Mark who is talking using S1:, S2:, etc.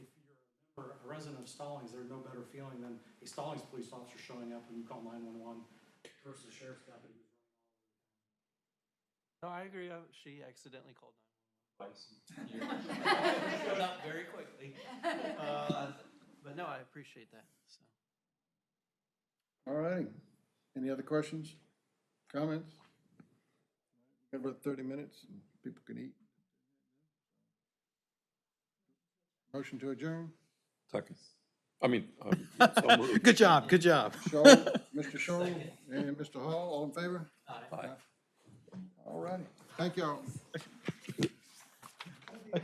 S1: resident of Stallings, there's no better feeling than a Stallings police officer showing up when you call nine-one-one versus the sheriff's deputy.
S2: No, I agree. uh, She accidentally called
S3: Twice.
S2: nine. Showed up very quickly. Uh, But no, I appreciate that, so.
S4: All right. Any other questions, comments? Got about thirty minutes and people can eat. Motion to adjourn.
S3: Second. I mean, um, so moved.
S5: Good job, good job.
S4: Shaw, Mr. Shaw and Mr. Hall, all in favor?
S3: Aye.
S4: All righty. Thank y'all.